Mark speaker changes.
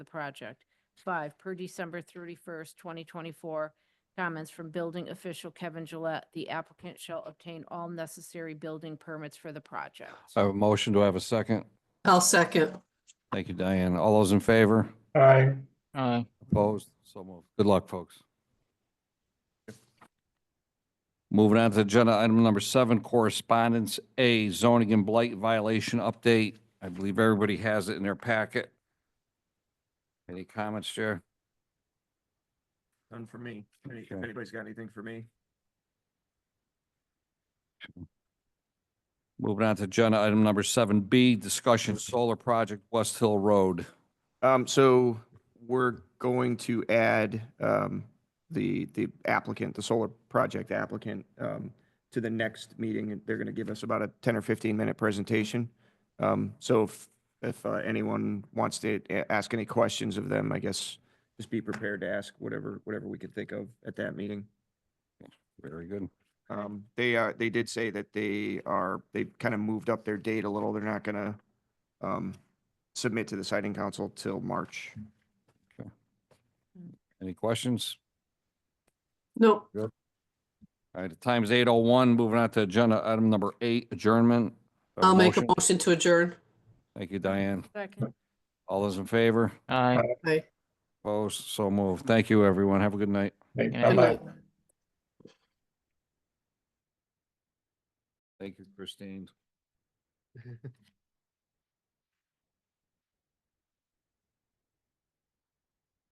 Speaker 1: the project. Five, per December thirty-first, twenty twenty-four, comments from building official Kevin Gillette, the applicant shall obtain all necessary building permits for the project.
Speaker 2: I have a motion. Do I have a second?
Speaker 3: I'll second.
Speaker 2: Thank you, Diane. All those in favor?
Speaker 4: aye,
Speaker 5: aye,
Speaker 2: Opposed? So moved. Good luck, folks. Moving on to agenda item number seven, correspondence A, zoning and blight violation update. I believe everybody has it in their packet. Any comments, Chair?
Speaker 6: None for me. Any- If
Speaker 2: Okay.
Speaker 6: anybody's got anything for me,
Speaker 2: Moving on to agenda item number seven B, discussion solar project West Hill Road.
Speaker 6: Um, so we're going to add, um, the, the applicant, the solar project applicant, um, to the next meeting, and they're gonna give us about a ten or fifteen minute presentation. Um, so if, if uh, anyone wants to a- ask any questions of them, I guess, just be prepared to ask whatever, whatever we could think of at that meeting.
Speaker 2: Very good.
Speaker 6: Um, they are, they did say that they are, they kind of moved up their date a little. They're not gonna, um, submit to the siting council till March.
Speaker 2: Any questions?
Speaker 3: No,
Speaker 2: All right, the time is eight oh one. Moving on to agenda item number eight, adjournment. Have
Speaker 3: I'll make a
Speaker 2: motion?
Speaker 3: motion to adjourn.
Speaker 2: Thank you, Diane.
Speaker 1: Second.
Speaker 2: All those in favor?
Speaker 5: aye.
Speaker 3: Aye.
Speaker 2: Opposed? So moved. Thank you, everyone. Have a good night.
Speaker 4: Hey,
Speaker 5: Yeah.
Speaker 3: Good
Speaker 4: bye-bye.
Speaker 3: night.
Speaker 2: Thank you, Christine.